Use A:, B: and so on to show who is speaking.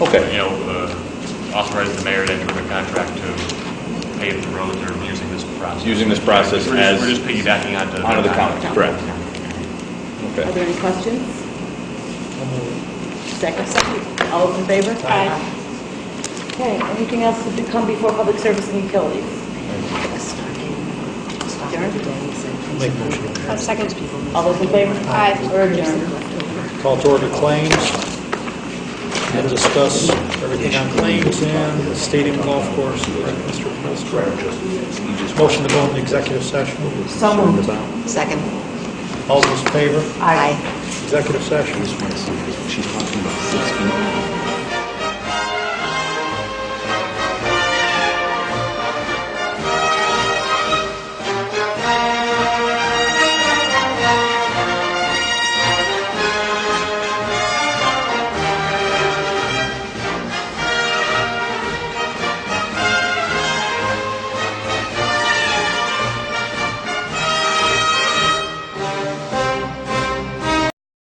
A: Okay.
B: you know, uh, authorize the mayor to enter a contract to pave the roads or using this process.
A: Using this process
B: We're just- We're
A: as,
B: just piggybacking onto. their
A: onto the county,
B: contract.
A: correct?
C: Are
A: Okay.
C: there any questions? Second. All those in favor? Aye. Okay, anything else to come before public service and utilities?
D: Make motion.
E: I'll second.
C: All those in favor?
E: Aye.
C: We're adjourned.
D: Call to order claims and discuss everything on claims and the stadium golf course with Mr. Penister. Motion to go into executive session.
C: So moved.
E: Second.
D: All those in favor?
E: Aye.
D: Executive session.
F: She's talking about six feet.